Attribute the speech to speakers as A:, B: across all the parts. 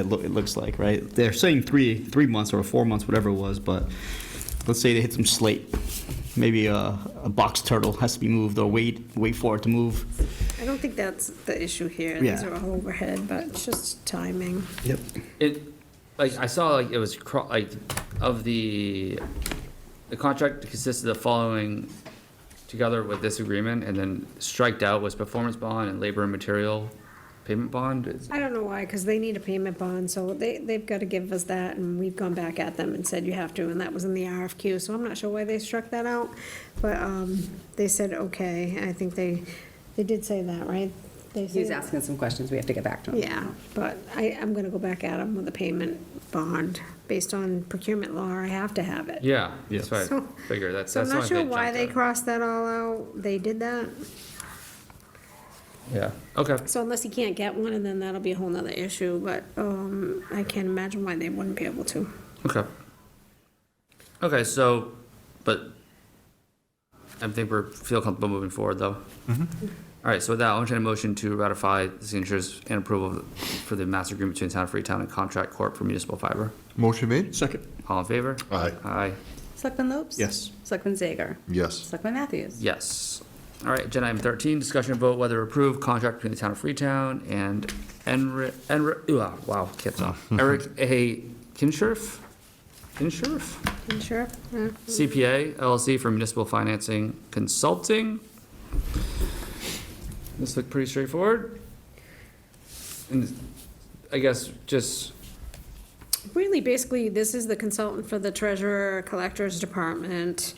A: it, loo- it looks like, right? They're saying three, three months or four months, whatever it was, but let's say they hit some slate. Maybe a, a box turtle has to be moved or wait, wait for it to move.
B: I don't think that's the issue here. These
A: Yeah.
B: are all overhead, but it's just timing.
A: Yep.
C: It, like, I saw, like, it was, cro- like, of the, the contract consisted of the following together with this agreement, and then striked out was performance bond and labor and material payment bond. It's-
B: I don't know why, because they need a payment bond, so they, they've got to give us that, and we've gone back at them and said you have to, and that was in the RFQ, so I'm not sure why they struck that out. But, um, they said, okay, I think they, they did say that, right? They
D: He was
B: said-
D: asking some questions, we have to get back to him.
B: Yeah, but I, I'm gonna go back at them with a payment bond. Based on procurement law, I have to have it.
C: Yeah, that's
B: Yeah.
C: what I
B: So-
C: figured, that's,
B: So I'm
C: that's.
B: not
C: the
B: sure
C: only
B: why they
C: thing that
B: crossed that all out. They did that.
C: jumped out. Yeah, okay.
B: So unless he can't get one, and then that'll be a whole nother issue, but, um, I can't imagine why they wouldn't be able to.
C: Okay. Okay, so, but I think we're, feel comfortable moving forward, though. All right, so with that, I'll entertain a motion to ratify the signatures and approval for the master agreement between Town of Freetown and Contract Corp for municipal fiber.
E: Motion made?
A: Second.
C: All in favor?
E: Aye.
C: Aye,
D: Selectman Lopes?
A: Yes.
D: Selectman Zager?
E: Yes.
D: Selectman Matthews?
C: yes. All right, agenda item thirteen, discussion and vote whether approve contract between the Town of Freetown and Enri, Enri, ooh, ah, wow, can't talk. Eric A. Kinshirf? Kinshirf?
B: And sure, yeah.
C: CPA LLC for municipal financing consulting. This looked pretty straightforward. And I guess just,
B: Really, basically, this is the consultant for the treasurer, collector's department,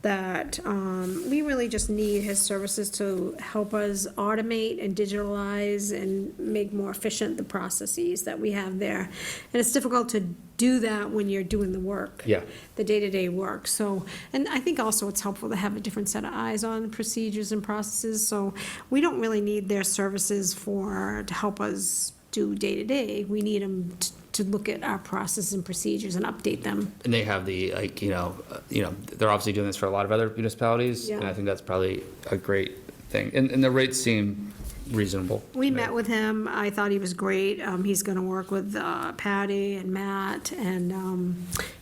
B: that, um, we really just need his services to help us automate and digitalize and make more efficient the processes that we have there. And it's difficult to do that when you're doing the work.
C: Yeah.
B: The day-to-day work, so, and I think also it's helpful to have a different set of eyes on procedures and processes, so we don't really need their services for, to help us do day-to-day. We need them to look at our processes and procedures and update them.
C: and they have the, like, you know, uh, you know, they're obviously doing this for a lot of other municipalities. And
B: Yeah.
C: I think that's probably a great thing. And, and the rates seem reasonable.
B: We met with him, I thought he was great, um, he's gonna work with, uh, Patty and Matt, and, um,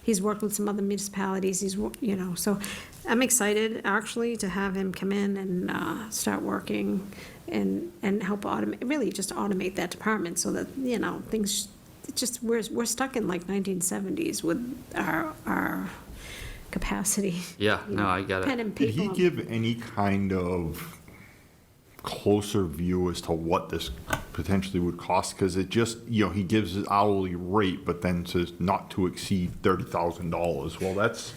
B: he's worked with some other municipalities, he's, wo- you know, so I'm excited, actually, to have him come in and, uh, start working and, and help automate, really just automate that department so that, you know, things, it just, we're, we're stuck in like nineteen seventies with our, our capacity.
C: Yeah, no, I get
B: Pen
C: it.
B: and
E: Did he
B: paper.
E: give any kind of closer view as to what this potentially would cost? Because it just, you know, he gives his hourly rate, but then says not to exceed $30,000. Well, that's,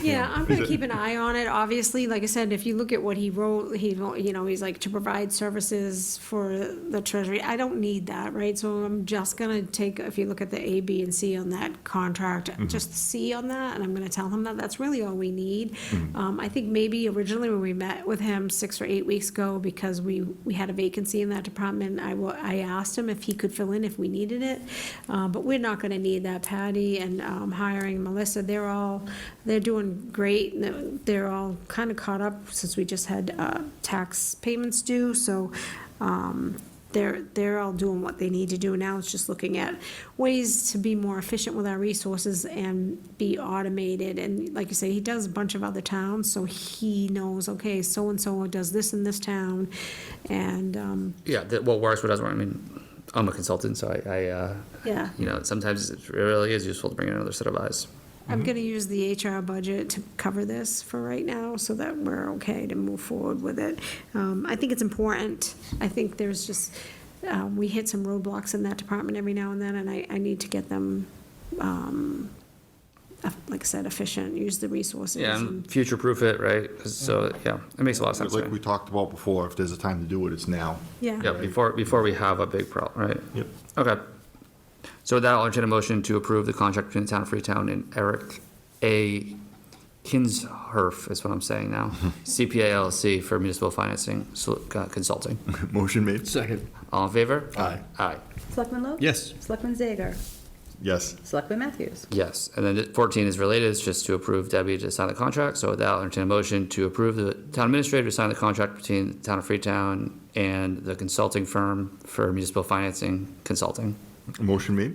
B: Yeah, I'm gonna keep an eye on it, obviously, like I said, if you look at what he wrote, he, wrote- you know, he's like, to provide services for the treasury, I don't need that, right? So I'm just gonna take, if you look at the A, B, and C on that contract, just C on that, and I'm gonna tell him that that's really all we need. Um, I think maybe originally when we met with him six or eight weeks ago, because we, we had a vacancy in that department, I wa- I asked him if he could fill in if we needed it, uh, but we're not gonna need that, Patty and, um, hiring Melissa, they're all, they're doing great, and they're- they're all kinda caught up since we just had, uh, tax payments due, so, um, they're, they're all doing what they need to do now, it's just looking at ways to be more efficient with our resources and be automated, and like you say, he does a bunch of other towns, so he knows, okay, so-and-so does this in this town, and, um,
C: Yeah, that, what works, what doesn't work. I mean, I'm a consultant, so I, I, uh,
B: yeah.
C: you know, sometimes it really is useful to bring in another set of eyes. Mm-hmm.
B: I'm gonna use the HR budget to cover this for right now, so that we're okay to move forward with it. Um, I think it's important, I think there's just, uh, we hit some roadblocks in that department every now and then, and I, I need to get them, um, eff- like I said, efficient, use the resources.
C: Yeah,
B: and-
C: and future-proof it, right? 'Cause- So, yeah, it makes a lot of sense.
E: like
C: right?
E: we talked about before, if there's a time to do it, it's now.
C: Yeah,
B: Yeah,
C: before, before we have a big problem, right?
E: Yep.
C: Okay. So with that, I'll entertain a motion to approve the contract between the Town of Freetown and Eric A. Kinsherf, is what I'm saying now, CPA LLC for municipal financing so- uh, consulting.
E: Motion made?
A: Second.
C: All in favor?
E: Aye.
C: Aye,
D: Selectman Lopes?
A: Yes.
D: Selectman Zager?
E: Yes.
D: Selectman Matthews?
C: yes. And then fourteen is related, it's just to approve Debbie to sign the contract. So with that, I'll entertain a motion to approve the town administrator to sign the contract between the Town of Freetown and the consulting firm for municipal financing consulting.
E: Motion made.